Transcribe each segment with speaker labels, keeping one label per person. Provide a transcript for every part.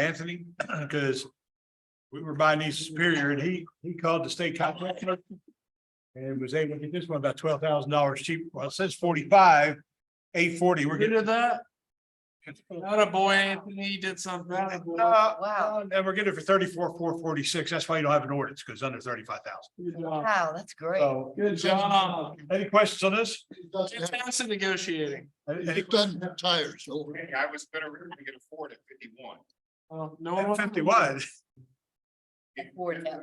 Speaker 1: Anthony, because we were by Nice Superior and he, he called the state contract. person And was able to get this one about twelve thousand dollars cheap. Well, it says forty-five, eight forty, we're
Speaker 2: Rid
Speaker 1: getting.
Speaker 2: of that, not a boy, Anthony did something. Attaboy.
Speaker 1: Uh, uh, And we're getting it for thirty-four, four forty-six. That's why you don't have an ordinance, because under thirty-five thousand.
Speaker 2: Good job.
Speaker 3: Wow, that's great.
Speaker 1: So,
Speaker 2: Good job.
Speaker 1: any questions on this?
Speaker 4: It doesn't have-
Speaker 2: Fantastic negotiating.
Speaker 1: Any- any-
Speaker 4: It doesn't have tires over. it.
Speaker 5: I was better, we could afford it fifty-one.
Speaker 2: Um, No one-
Speaker 1: Fifty-one.
Speaker 3: Afford that.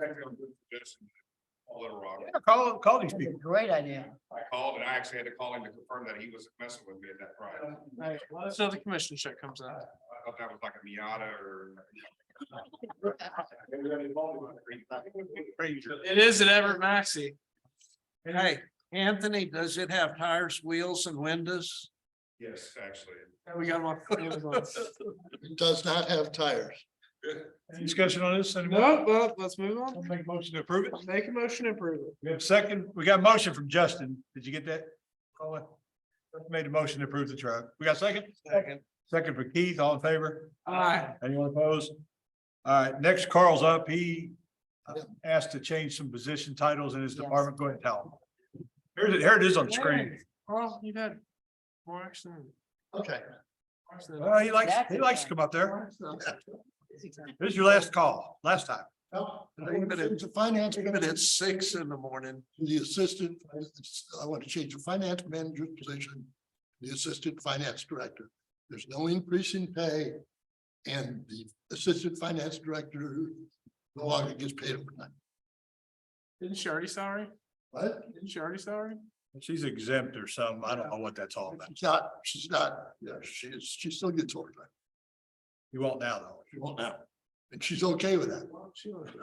Speaker 5: All in rock.
Speaker 1: Call, call these
Speaker 3: That's a
Speaker 1: people.
Speaker 3: great idea.
Speaker 5: I called and I actually had to call him to confirm that he wasn't messing with me at that price.
Speaker 2: Right, let us know the commission check comes out.
Speaker 5: I thought that was like a Miata or.
Speaker 1: Crazy.
Speaker 2: It is at Everett Maxi.
Speaker 6: Hey, Anthony, does it have tires, wheels and windows?
Speaker 5: Yes, actually.
Speaker 2: We got one.
Speaker 4: It does not have tires.
Speaker 1: Any Discussion on this anymore?
Speaker 2: No, well, let's move on.
Speaker 1: Make a motion to approve it.
Speaker 2: Make a motion to approve it.
Speaker 1: We have a second. We got a motion from Justin. Did you get that? Colin? Justin Made a motion to approve the truck. We got a second?
Speaker 2: Second. Uh,
Speaker 1: Second for Keith, all in favor?
Speaker 2: Aye.
Speaker 1: Anyone opposed? All right, next Carl's up. He uh, asked to change some position titles in his
Speaker 3: Yes.
Speaker 1: department. Go ahead and tell him. Here it, here it is on the screen.
Speaker 2: Hey, Carl, you've had more action. than-
Speaker 4: Okay,
Speaker 2: more action than-
Speaker 1: Well, he likes, he likes to come up there. This is your last call, last time.
Speaker 4: now, I
Speaker 6: Wait a
Speaker 4: want to
Speaker 6: minute.
Speaker 4: change the finance,
Speaker 6: Even
Speaker 4: manager
Speaker 6: at six in the morning.
Speaker 4: to the assistant, I want to change the finance manager position, to the assistant finance director. There's no increase in pay. And the assistant finance director no longer gets paid overtime.
Speaker 2: Didn't she already sorry?
Speaker 4: What?
Speaker 2: Didn't she already sorry?
Speaker 1: She's exempt or something. I don't know what that's all about.
Speaker 4: She's not, she's not, yeah, she's, she still gets overtime.
Speaker 1: You won't now though.
Speaker 4: She won't now. And she's okay with that.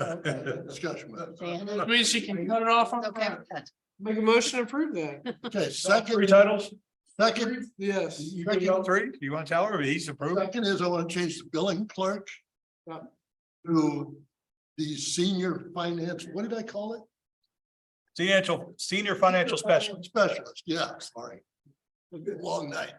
Speaker 1: Okay.
Speaker 4: Discussion. with her.
Speaker 2: I
Speaker 3: Diana,
Speaker 2: mean, she can cut it off on
Speaker 3: it's okay
Speaker 2: that.
Speaker 3: with that.
Speaker 2: Make a motion to approve that.
Speaker 4: Okay,
Speaker 1: Three
Speaker 4: second,
Speaker 1: titles?
Speaker 4: second,
Speaker 2: Yes.
Speaker 1: You can go three. You want to tell her? He's approved.
Speaker 4: second is I want to change the billing clerk.
Speaker 2: Yeah.
Speaker 4: To the senior finance, what did I call it?
Speaker 1: Financial, senior financial specialist.
Speaker 4: Specialist, yeah, sorry. It's been a long night.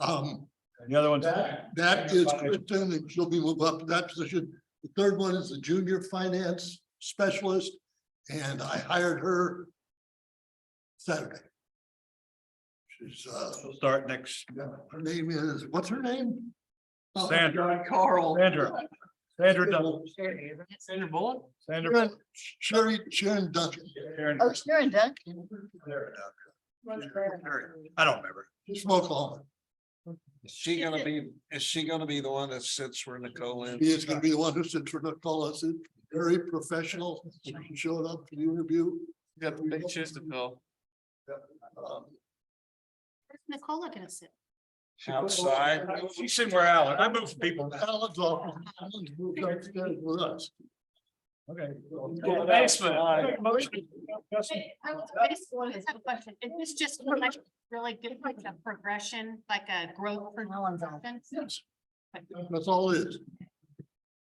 Speaker 4: Um,
Speaker 1: And the other one's.
Speaker 4: that, that is Kristen, and she'll be moved up to that position. The third one is the junior finance specialist, and I hired her. Saturday. She's, uh,
Speaker 1: We'll Start next,
Speaker 4: her name is, what's her name?
Speaker 1: Sandra,
Speaker 2: Carl.
Speaker 1: Sandra, Sandra, Dunn-
Speaker 2: Sandra Bullock?
Speaker 1: Sandra.
Speaker 4: Sharon- Sherry, Sharon Duncan.
Speaker 1: Karen-
Speaker 3: Oh, Sharon Duncan.
Speaker 1: Karen, Karen. I don't remember.
Speaker 4: She's from Oklahoma.
Speaker 6: Is she gonna be, is she gonna be the one that sits where Nicole
Speaker 4: He
Speaker 6: is?
Speaker 4: is gonna be the one who sits for Nicole. It's very professional. She showed up for the interview.
Speaker 2: Got the big shoes to fill.
Speaker 4: Um,
Speaker 7: Where's Nicola gonna sit?
Speaker 6: Outside.
Speaker 1: She's sitting where Alan, I move people.
Speaker 4: Alan's off. Alan's moved upstairs with us.
Speaker 1: Okay.
Speaker 2: Thanks, man.
Speaker 1: Justin,
Speaker 7: I will- I just have a question. Is this just for like really good, like a progression, like a growth? for
Speaker 3: No one's on.
Speaker 4: That's all it is.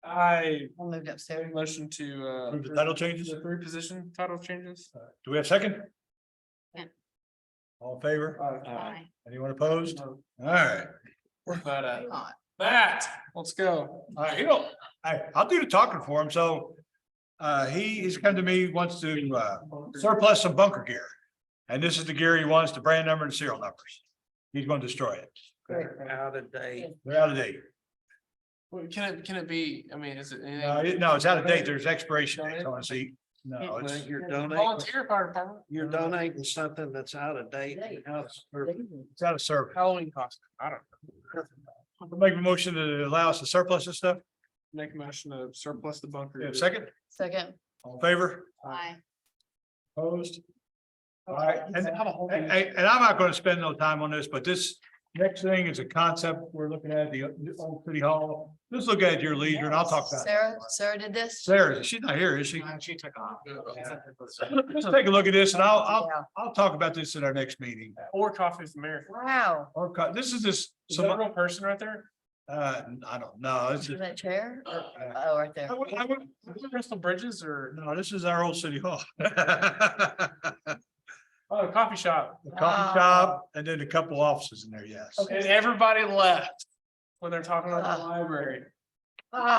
Speaker 2: I
Speaker 3: I moved upstairs.
Speaker 2: motion to uh.
Speaker 1: Approve the title changes?
Speaker 2: The three position title changes.
Speaker 1: Do we have a second?
Speaker 7: Yeah.
Speaker 1: All in favor?
Speaker 6: Uh,
Speaker 2: Aye.
Speaker 7: Aye.
Speaker 1: Anyone opposed? All right.
Speaker 2: But uh,
Speaker 3: Not.
Speaker 2: that, let's go.
Speaker 1: All right, you know, I, I'll do the talking for him, so. Uh, he, he's come to me, wants to, uh, surplus some bunker gear. And this is the gear he wants, the brand number and serial numbers. He's gonna destroy it.
Speaker 6: Out of date.
Speaker 1: They're out of date.
Speaker 2: Well, Can it, can it be, I mean, is it? anything-
Speaker 1: No, it- no, it's out of date. There's expiration dates on it, see. No,
Speaker 6: Well,
Speaker 1: it's,
Speaker 6: You're donating,
Speaker 2: Volunteer fire department.
Speaker 6: you're donating something that's out of date. How it's perfect.
Speaker 1: it's out of service.
Speaker 2: Halloween costume. I don't
Speaker 1: Make a motion to allow us to surplus this stuff.
Speaker 2: know. Make a motion to surplus the bunker.
Speaker 1: We have a Second,
Speaker 3: Second.
Speaker 1: all in favor,
Speaker 7: Aye.
Speaker 1: opposed? All right, and,
Speaker 2: Have a whole
Speaker 1: and,
Speaker 2: thing.
Speaker 1: and I'm not gonna spend no time on this, but this next thing is a concept we're looking at, the old city hall. Let's look at your leisure and I'll talk about it.
Speaker 3: Sarah, Sarah did this.
Speaker 1: Sarah, she's not here, is she?
Speaker 2: She took off.
Speaker 1: Let's take a look at this and I'll, I'll,
Speaker 3: Yeah.
Speaker 1: I'll talk about this at our next meeting.
Speaker 2: Four coffees a marathon.
Speaker 3: Wow.
Speaker 1: Or, co- this is this,
Speaker 2: Is that a
Speaker 1: some,
Speaker 2: real person right there?
Speaker 1: uh, I don't know, it's,
Speaker 3: In
Speaker 1: just-
Speaker 3: that chair?
Speaker 1: uh,
Speaker 3: Oh, right there.
Speaker 1: I would, I would,
Speaker 2: Is it Crystal Bridges or
Speaker 1: No, this is our old city hall. The
Speaker 2: oh, a coffee shop?
Speaker 3: Wow.
Speaker 1: Coffee shop and then a couple offices in there, yes.
Speaker 2: And everybody left when they're talking about the library.
Speaker 3: Ah,